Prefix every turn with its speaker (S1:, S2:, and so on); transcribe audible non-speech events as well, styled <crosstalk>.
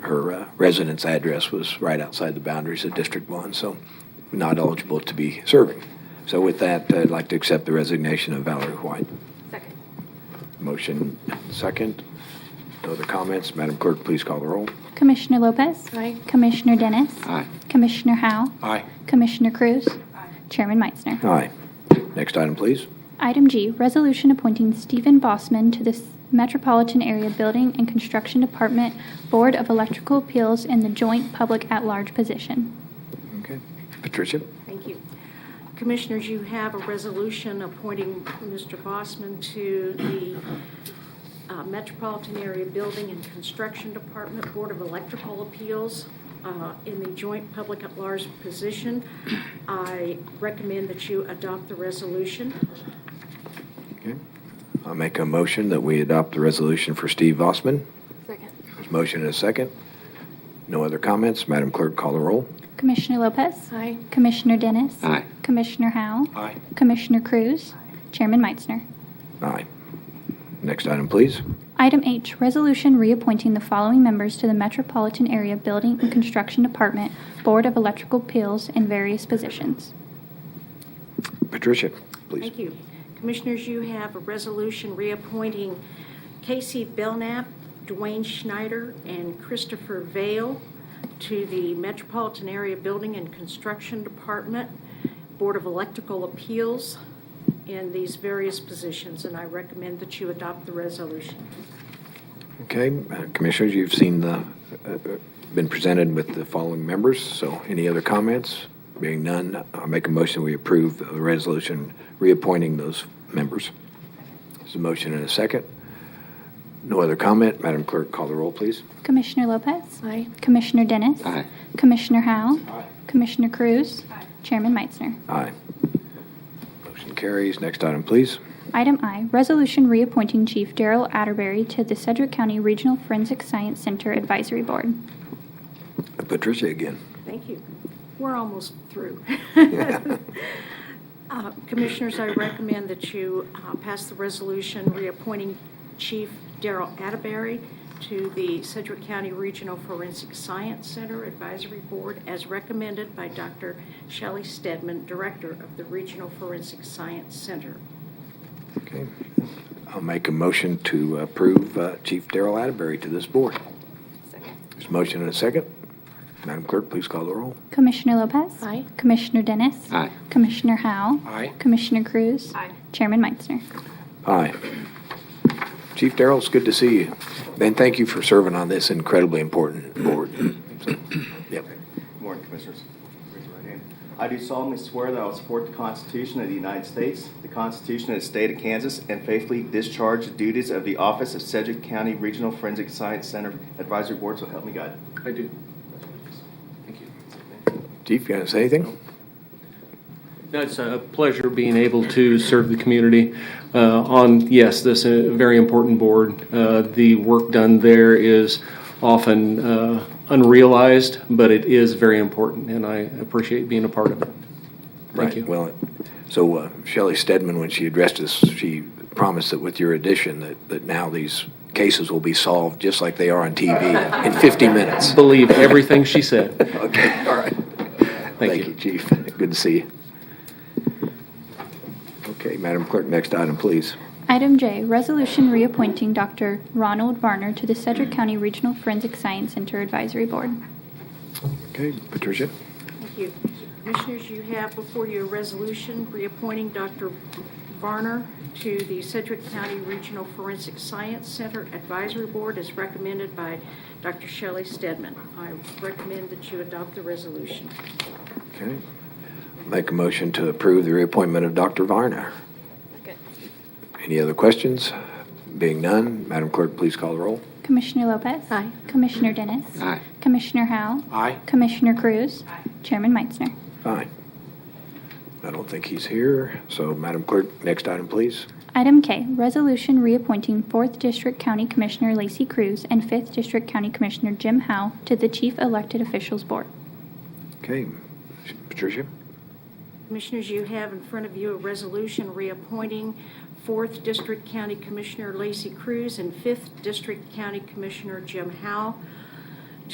S1: her uh, residence address was right outside the boundaries of District 1, so not eligible to be serving. So with that, I'd like to accept the resignation of Valerie White.
S2: Second.
S1: Motion second. No other comments? Madam Clerk, please call the roll.
S3: Commissioner Lopez.
S2: Aye.
S3: Commissioner Dennis.
S4: Aye.
S3: Commissioner Howe.
S1: Aye.
S3: Commissioner Cruz. Chairman Meitzner.
S1: Aye. Next item, please.
S3: Item G, resolution appointing Stephen Bossman to the S- Metropolitan Area Building and Construction Department Board of Electrical Appeals in the joint public at-large position.
S1: Okay. Patricia?
S2: Thank you. Commissioners, you have a resolution appointing Mr. Bossman to the uh, Metropolitan Area Building and Construction Department Board of Electrical Appeals uh, in the joint public at large position. I recommend that you adopt the resolution.
S1: Okay. I'll make a motion that we adopt the resolution for Steve Vossman.
S2: Second.
S1: There's motion and a second. No other comments? Madam Clerk, call the roll.
S3: Commissioner Lopez.
S2: Aye.
S3: Commissioner Dennis.
S4: Aye.
S3: Commissioner Howe.
S1: Aye.
S3: Commissioner Cruz. Chairman Meitzner.
S1: Aye. Next item, please.
S3: Item H, resolution reappointing the following members to the Metropolitan Area Building and Construction Department Board of Electrical Appeals in various positions.
S1: Patricia, please.
S2: Thank you. Commissioners, you have a resolution reappointing Casey Belknap, Dwayne Schneider, and Christopher Vale to the Metropolitan Area Building and Construction Department Board of Electrical Appeals in these various positions, and I recommend that you adopt the resolution.
S1: Okay, uh, Commissioners, you've seen the, uh, uh, been presented with the following members, so any other comments? Being none, I'll make a motion, we approve the resolution reappointing those members. There's a motion and a second. No other comment, Madam Clerk, call the roll, please.
S3: Commissioner Lopez.
S2: Aye.
S3: Commissioner Dennis.
S4: Aye.
S3: Commissioner Howell. Commissioner Cruz. Chairman Meitzner.
S1: Aye. Motion carries, next item, please.
S3: Item I, resolution reappointing Chief Daryl Atterbury to the Sedgwick County Regional Forensic Science Center Advisory Board.
S1: Patricia again.
S2: Thank you. We're almost through. Uh, Commissioners, I recommend that you uh, pass the resolution reappointing Chief Daryl Atterbury to the Sedgwick County Regional Forensic Science Center Advisory Board as recommended by Dr. Shelley Stedman, Director of the Regional Forensic Science Center.
S1: Okay. I'll make a motion to approve uh, Chief Darrell Atterbury to this board. There's a motion and a second. Madam Clerk, please call the roll.
S3: Commissioner Lopez.
S2: Aye.
S3: Commissioner Dennis.
S4: Aye.
S3: Commissioner Howell.
S1: Aye.
S3: Commissioner Cruz.
S2: Aye.
S3: Chairman Meitzner.
S1: Hi. Chief Darrell, it's good to see you. And thank you for serving on this incredibly important board. So, Yep.
S5: Good morning, Commissioners. Raise your right hand. I do solemnly swear that I will support the Constitution of the United States, the Constitution of the State of Kansas, and faithfully discharge the duties of the Office of Sedgwick County Regional Forensic Science Center Advisory Board, so help me God.
S4: I do. Thank you.
S1: Chief, you want to say anything?
S6: No, it's a pleasure being able to serve the community uh, on, yes, this uh, very important board. Uh, The work done there is often uh, unrealized, but it is very important, and I appreciate being a part of it. Thank
S1: Right,
S6: you.
S1: Well, so uh, Shelley Stedman, when she addressed us, she promised that with your addition, that, that now these cases will be solved just like they are on
S6: <laughs>
S1: TV in 50 minutes.
S6: Believe
S1: <laughs>
S6: everything she said.
S1: Okay, all right.
S6: you.
S1: Chief. Good to see you. Okay, Madam Clerk, next item, please.
S3: Item J, resolution reappointing Dr. Ronald Varner to the Cedric County Regional Forensic Science Center Advisory Board.
S1: Okay, Patricia?
S2: Thank you. Commissioners, you have before you a resolution reappointing Dr. Varner to the Sedgwick County Regional Forensic Science Center Advisory Board as recommended by Dr. Shelley Stedman. I recommend that you adopt the resolution.
S1: Okay. Make a motion to approve the reappointment of Dr. Varner. Any other questions? Being none, Madam Clerk, please call the roll.
S3: Commissioner Lopez.
S2: Aye.
S3: Commissioner Dennis.
S4: Aye.
S3: Commissioner Howell.
S1: Aye.
S3: Commissioner Cruz. Chairman Meitzner.
S1: Fine. I don't think he's here, so Madam Clerk, next item, please.
S3: Item K, resolution reappointing 4th District County Commissioner Lacey Cruz and 5th District County Commissioner Jim Howe to the Chief Elected Officials Board.
S1: Okay, Patricia?
S2: Commissioners, you have in front of you a resolution reappointing 4th District County Commissioner Lacey Cruz and 5th District County Commissioner Jim Howe